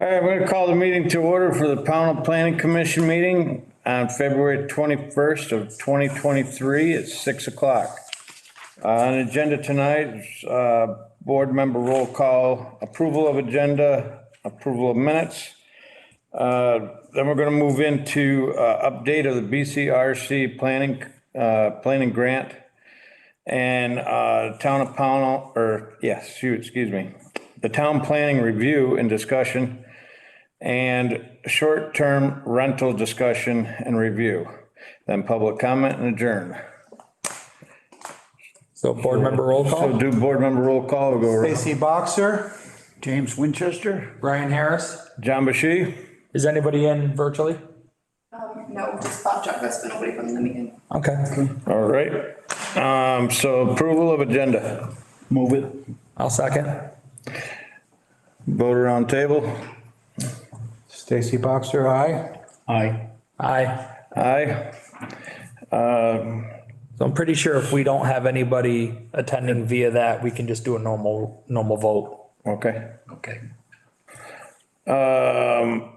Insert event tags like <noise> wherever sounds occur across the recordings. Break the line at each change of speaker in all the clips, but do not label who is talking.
All right, we're gonna call the meeting to order for the Pownell Planning Commission meeting on February twenty-first of twenty twenty-three at six o'clock. Uh, on agenda tonight, is, uh, board member roll call, approval of agenda, approval of minutes. Uh, then we're gonna move into, uh, update of the BCRC planning, uh, planning grant. And uh, Town of Pownell, or, yes, shoot, excuse me, the Town Planning Review and Discussion and Short-Term Rental Discussion and Review, then Public Comment and Adjourn.
So board member roll
So
call,
do Board Member Roll Call, we'll go around.
Stacy Boxer,
James Winchester,
Brian Harris.
John Bashy,
Is anybody in virtually?
Um, no, just Bob Chuck, that's been nobody from the meeting.
Okay,
all right. Um, So approval of agenda,
move it.
I'll second.
vote around table,
Stacy Boxer, aye.
Aye.
Aye.
aye.
So I'm pretty sure if we don't have anybody attending via that, we can just do a normal, normal vote.
Okay.
Okay.
Um,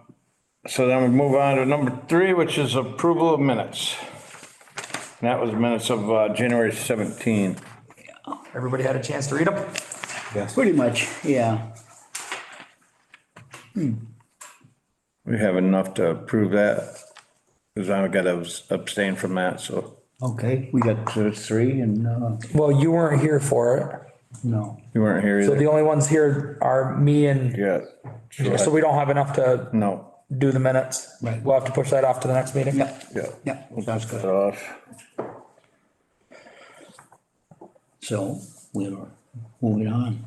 So then we move on to number three, which is approval of minutes. And that was minutes of uh, January 17.
Everybody had a chance to read them?
Pretty much, yeah.
We have enough to approve that, because I've got to abstain from that, so
Okay, we got uh, three and, uh,
Well, you weren't here for it.
no,
you weren't here
So the
either.
only ones here are me and,
Yeah.
so we don't have enough to
No,
do the minutes.
Right.
We'll have to push that off to the next meeting.
yeah,
yeah.
yeah, sounds
Cut
good.
Off.
So we're moving on.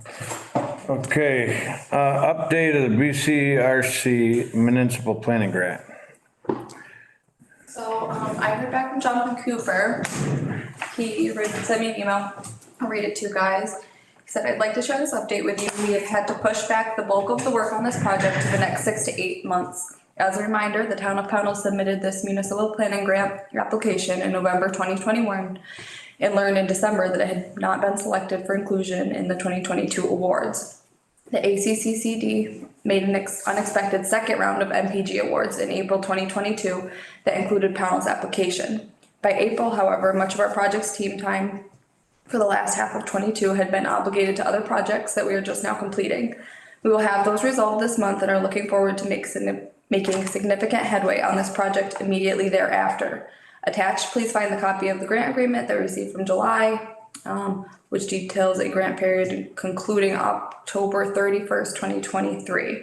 Okay, uh, update of the BCRC municipal planning grant.
So, um, I heard back from Jonathan Cooper. He re- sent me an email, I'll read it to you guys. He said, I'd like to share this update with you. We have had to push back the bulk of the work on this project to the next six to eight months. As a reminder, the town of Pownell submitted this municipal planning grant application in November twenty twenty-one and learned in December that it had not been selected for inclusion in the twenty twenty-two awards. The ACCCD made an ex- unexpected second round of MPG awards in April 2022 that included Pownell's application. By April, however, much of our project's team time for the last half of '22 had been obligated to other projects that we are just now completing. We will have those resolved this month and are looking forward to make signi- making significant headway on this project immediately thereafter. Attached, please find the copy of the grant agreement that we received from July, um, which details a grant period concluding October 31st, 2023.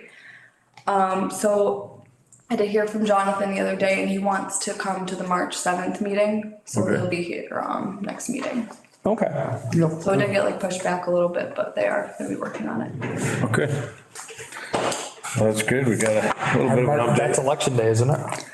Um, So I did hear from Jonathan the other day and he wants to come to the March 7th meeting. So he'll be here um, next meeting.
Okay.
So it did get like pushed back a little bit, but they are gonna be working on it.
Okay. Well, That's good, we got a little bit of an
That's
update.
election day, isn't it?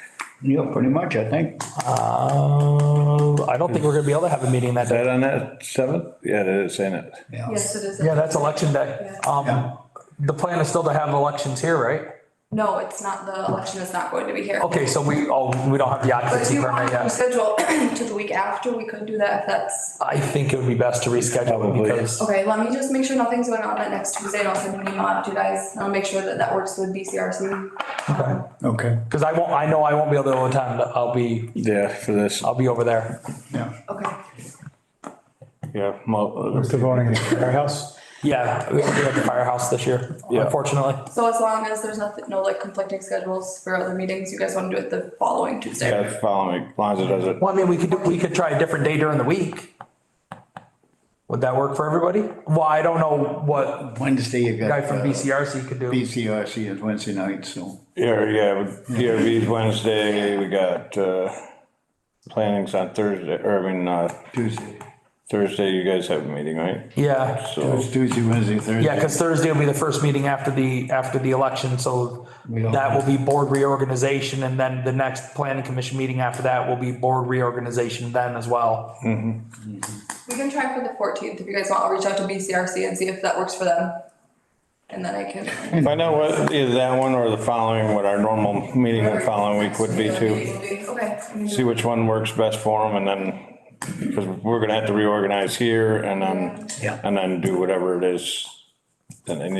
Yeah, pretty much, I think.
Uh, I don't think we're gonna be able to have a meeting that
Is
day.
that on that seventh? Yeah, that is in it.
Yeah.
Yes, it is.
Yeah, that's election day.
Yeah.
Um, the plan is still to have elections here, right?
No, it's not, the election is not going to be here.
Okay, so we, oh, we don't have the
But if
occupancy
you want
permit
to
yet.
schedule <clears throat> to the week after, we could do that if that's,
I think it would be best to reschedule
Probably.
because,
okay, let me just make sure nothing's going on that next Tuesday. and I'll send an email out to you guys. and I'll make sure that that works with BCRC.
Okay,
because I won't, I know I won't be able to attend. I'll be,
Yeah, for this,
I'll be over there.
yeah.
Okay.
yeah. mo-
Mr. Voting in the firehouse.
Yeah, we'll be at the firehouse this year,
Yeah.
unfortunately.
So as long as there's nothing, no like conflicting schedules for other meetings, you guys want to do it the following Tuesday?
Yeah, follow me, as long as it doesn't.
Well, I mean, we could, we could try a different day during the week. Would that work for everybody? Well, I don't know what
Wednesday you
guy
got.
from
uh,
BCRC could do.
BCRC is Wednesday night, so.
Yeah, yeah, DRV's Wednesday, we got, uh, plannings on Thursday, or I mean, uh,
Tuesday,
Thursday, you guys have a meeting, right?
Yeah,
So,
Tuesday, Tuesday, Wednesday, Thursday.
yeah, because Thursday will be the first meeting after the, after the election, so
We don't-
that will be board reorganization and then the next planning commission meeting after that will be board reorganization then as well.
We can try for the fourteenth. If you guys want, I'll reach out to BCRC and see if that works for them. And then I can.
find out what, either that one or the following, what our normal meeting the following week would be too.
Okay.
See which one works best for them and then, because we're gonna have to reorganize here and then,
Yeah.
and then do whatever it is that they need